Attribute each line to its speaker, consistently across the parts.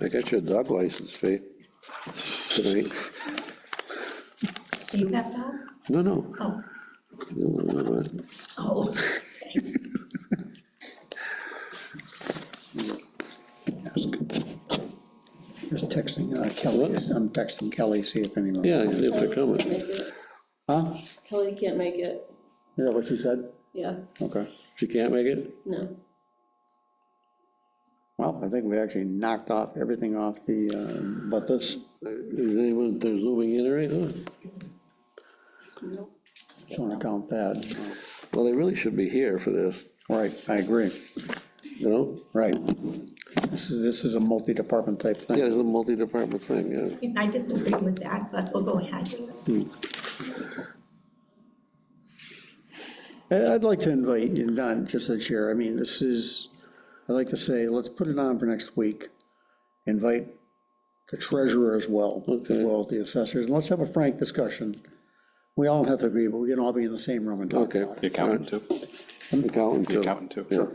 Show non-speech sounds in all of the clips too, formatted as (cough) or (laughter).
Speaker 1: I got your dog license fee tonight.
Speaker 2: You got that?
Speaker 1: No, no.
Speaker 2: Oh, oh.
Speaker 3: Just texting uh, Kelly, I'm texting Kelly, see if anyone.
Speaker 1: Yeah, if they're coming.
Speaker 3: Huh?
Speaker 4: Kelly can't make it,
Speaker 3: Is that what she said?
Speaker 4: yeah,
Speaker 3: Okay.
Speaker 1: She can't make it?
Speaker 4: no.
Speaker 3: Well, I think we actually knocked off everything off the, uh, but this,
Speaker 1: Is anyone, there's moving in or anything?
Speaker 3: just want to count that.
Speaker 1: Well, they really should be here for this,
Speaker 3: Right, I agree,
Speaker 1: you know?
Speaker 3: right. This is, this is a multi-department type
Speaker 1: Yeah,
Speaker 3: thing.
Speaker 1: it's a multi-department thing, yeah.
Speaker 2: I disagree with that, but we'll go ahead.
Speaker 3: Hmm. I- I'd like to invite, and not just the chair, I mean, this is, I'd like to say, let's put it on for next week. Invite the treasurer as well, as
Speaker 1: Okay.
Speaker 3: well as the assessors, and let's have a frank discussion. We all have to agree, but we can all be in the same room and talk
Speaker 1: Okay.
Speaker 3: about it.
Speaker 5: The accountant too,
Speaker 1: Accountant,
Speaker 5: the
Speaker 1: too.
Speaker 5: accountant too.
Speaker 1: Yeah.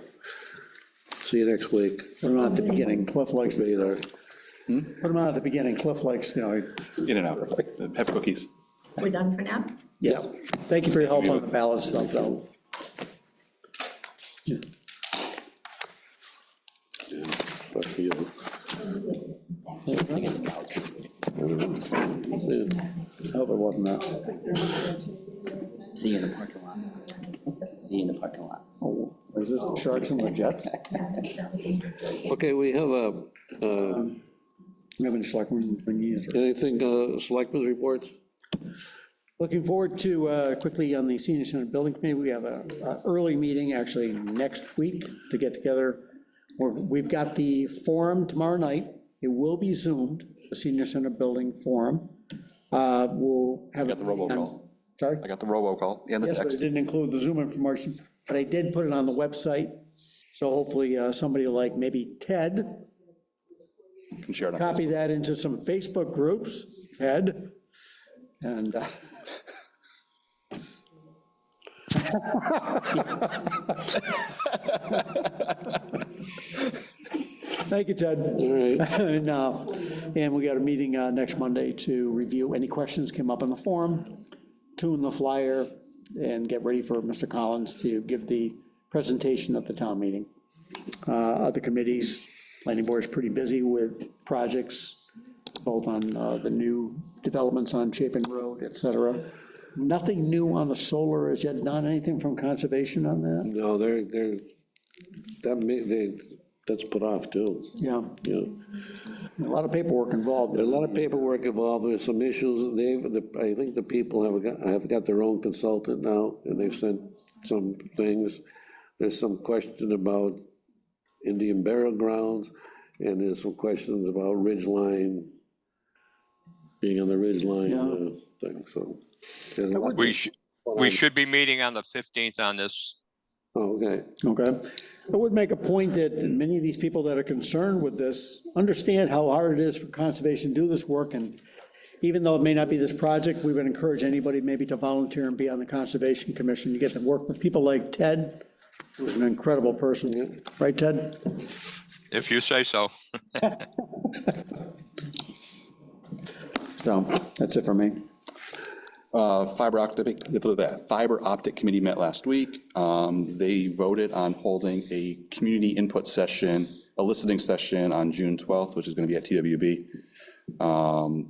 Speaker 1: See you next week.
Speaker 3: Put them on at the beginning, Cliff likes, put
Speaker 1: Be there.
Speaker 3: them on at the beginning, Cliff likes, you know,
Speaker 5: In and out, have cookies.
Speaker 2: We're done for now?
Speaker 3: yeah. Thank you for your help on the ballot stuff, though. Yeah.
Speaker 1: But for you. Yeah.
Speaker 3: I hope it wasn't that.
Speaker 6: See you in the parking lot. See you in the parking lot.
Speaker 3: Oh, Is this the Sharks and
Speaker 1: (laughs)
Speaker 3: the Jets?
Speaker 1: Okay, we have a, uh,
Speaker 3: We haven't selected when you use it.
Speaker 1: anything, uh, selectmen's reports?
Speaker 3: Looking forward to, uh, quickly on the senior center building committee, we have a, a early meeting actually next week to get together. We're- We've got the forum tomorrow night. It will be zoomed, the senior center building forum. Uh, We'll have.
Speaker 5: Got the robocall.
Speaker 3: Sorry?
Speaker 5: I got the robocall and the
Speaker 3: Yes, but it
Speaker 5: text.
Speaker 3: didn't include the Zoom information, but I did put it on the website. So hopefully uh, somebody like maybe Ted
Speaker 5: Can share it on-
Speaker 3: copy that into some Facebook groups, Ed, and. uh, (laughs) Thank you, Ted.
Speaker 1: All
Speaker 3: (laughs)
Speaker 1: right,
Speaker 3: And, uh, and we got a meeting uh, next Monday to review any questions came up in the forum, tune the flyer, and get ready for Mr. Collins to give the presentation at the town meeting. Uh, Other committees, planning board's pretty busy with projects, both on uh, the new developments on Chapin Road, et cetera. Nothing new on the solar as yet, not anything from conservation on that?
Speaker 1: no, they're, they're, that may, they, that's put off too,
Speaker 3: Yeah,
Speaker 1: you know.
Speaker 3: a lot of paperwork involved.
Speaker 1: There's a lot of paperwork involved, there's some issues, they've, the- I think the people have got, have got their own consultant now, and they've sent some things. There's some question about Indian burial grounds, and there's some questions about ridge line, being on the ridge line uh, thing, so. there's a lot-
Speaker 7: We should, we should be meeting on the 15th on this.
Speaker 1: Oh, Okay,
Speaker 3: Okay. I would make a point that many of these people that are concerned with this understand how hard it is for conservation to do this work, and even though it may not be this project, we would encourage anybody maybe to volunteer and be on the Conservation Commission. You get to work with people like Ted, who's an incredible person, right, Ted?
Speaker 7: If you say so.
Speaker 3: So, that's it for me.
Speaker 5: Uh, Fiber optic, fiber optic committee met last week. Um, They voted on holding a community input session, a listening session on June 12th, which is going to be at TWB. Um,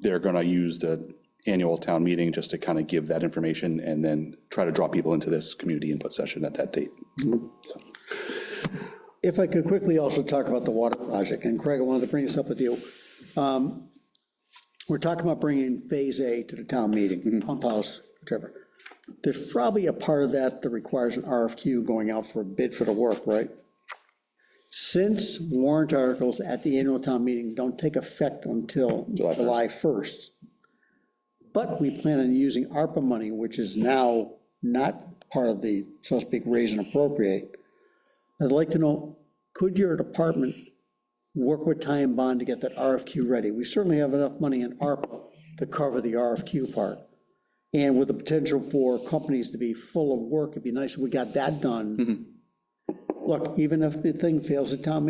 Speaker 5: They're going to use the annual town meeting just to kind of give that information and then try to draw people into this community input session at that date.
Speaker 3: If I could quickly also talk about the water project, and Craig, I wanted to bring this up with you. Um, We're talking about bringing Phase A to the town
Speaker 5: Mm-hmm.
Speaker 3: meeting, pump house, whichever. There's probably a part of that that requires an RFQ going out for a bid for the work, right? Since warrant articles at the annual town meeting don't take effect until
Speaker 5: July first.
Speaker 3: July 1st, but we plan on using ARPA money, which is now not part of the, so to speak, raise and appropriate, I'd like to know, could your department work with Ty and Bond to get that RFQ ready? We certainly have enough money in ARPA to cover the RFQ part. And with the potential for companies to be full of work, it'd be nice if we got that done. Look, even if the thing fails at town meeting,